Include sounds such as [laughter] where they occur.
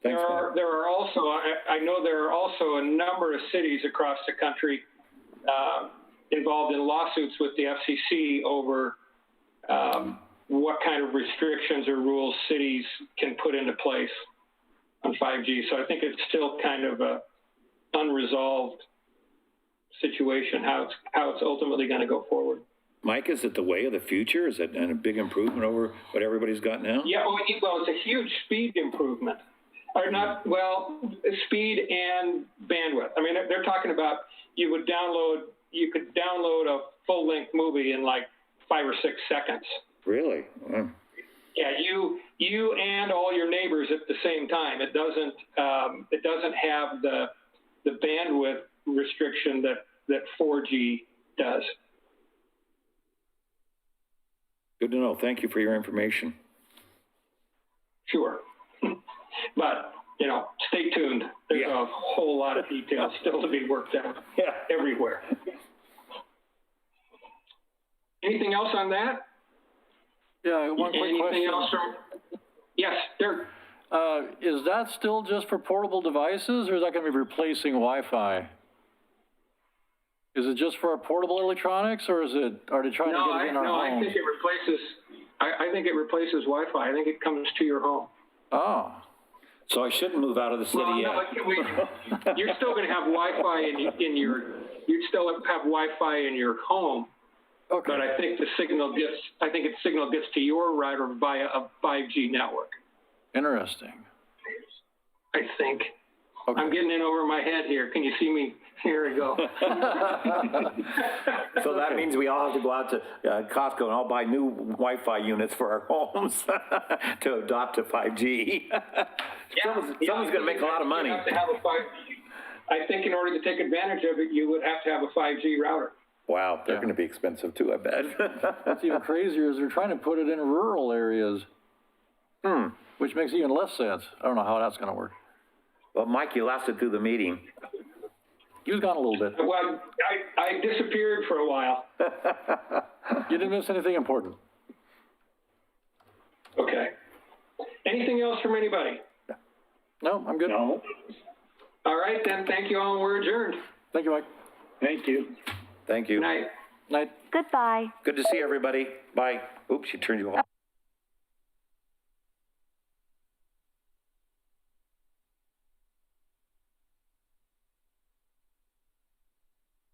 there are, there are also, I, I know there are also a number of cities across the country uh, involved in lawsuits with the FCC over um, what kind of restrictions or rules cities can put into place on 5G. So I think it's still kind of a unresolved situation, how it's, how it's ultimately going to go forward. Mike, is it the way of the future? Is it a big improvement over what everybody's got now? Yeah, well, it- well, it's a huge speed improvement. Or not, well, speed and bandwidth. I mean, they're- they're talking about you would download, you could download a full length movie in like five or six seconds. Really? Wow. Yeah, you you and all your neighbors at the same time. It doesn't um, it doesn't have the the bandwidth restriction that that 4G does. Good to know. Thank you for your information. Sure, [laughs] but you know, stay tuned. There's Yeah. a whole lot of details still to be worked out Yeah. everywhere. Anything else on that? Yeah, one quick Anything question. else from? Yes, Dirk. Uh, is that still just for portable devices, or is that gonna be replacing Wi-Fi? Is it just for our portable electronics, or is it, are they trying to No, get I, it in our no, I homes? think it replaces. I, I think it replaces Wi-Fi. I think it comes to your home. Oh, So I shouldn't move out of the city Well, yet. no, it- we- you're still going to have Wi-Fi in, y- in your, you'd still have Wi-Fi in your home, but okay, I think the signal gets, I think its signal gets to your router via a 5G network. interesting. I think. Okay. I'm getting in over my head here. Can you see me? Here we go. So that means we all have to go out to uh, Costco and all buy new Wi-Fi units for our [laughs] homes to adopt to 5G. [laughs] Someone's- Yeah, someone's gonna make a lot of money. You have to have a 5G. I think in order to take advantage of it, you would have to have a 5G router. Wow, they're going to be expensive too, I bet. What's even crazier is they're trying to put it in rural areas. Hmm. Which makes even less sense. I don't know how that's gonna work. [laughs] Well, Mike, you lasted through the meeting. He was gone a little bit. Well, I, I disappeared for a while. You didn't miss anything important. Okay. Anything else from anybody? No, I'm good. No, All right, then, thank you all, and we're adjourned. Thank you, Mike. thank you. Thank you. Night. Night. Goodbye. Good to see everybody. Bye. Oops, she turned you off.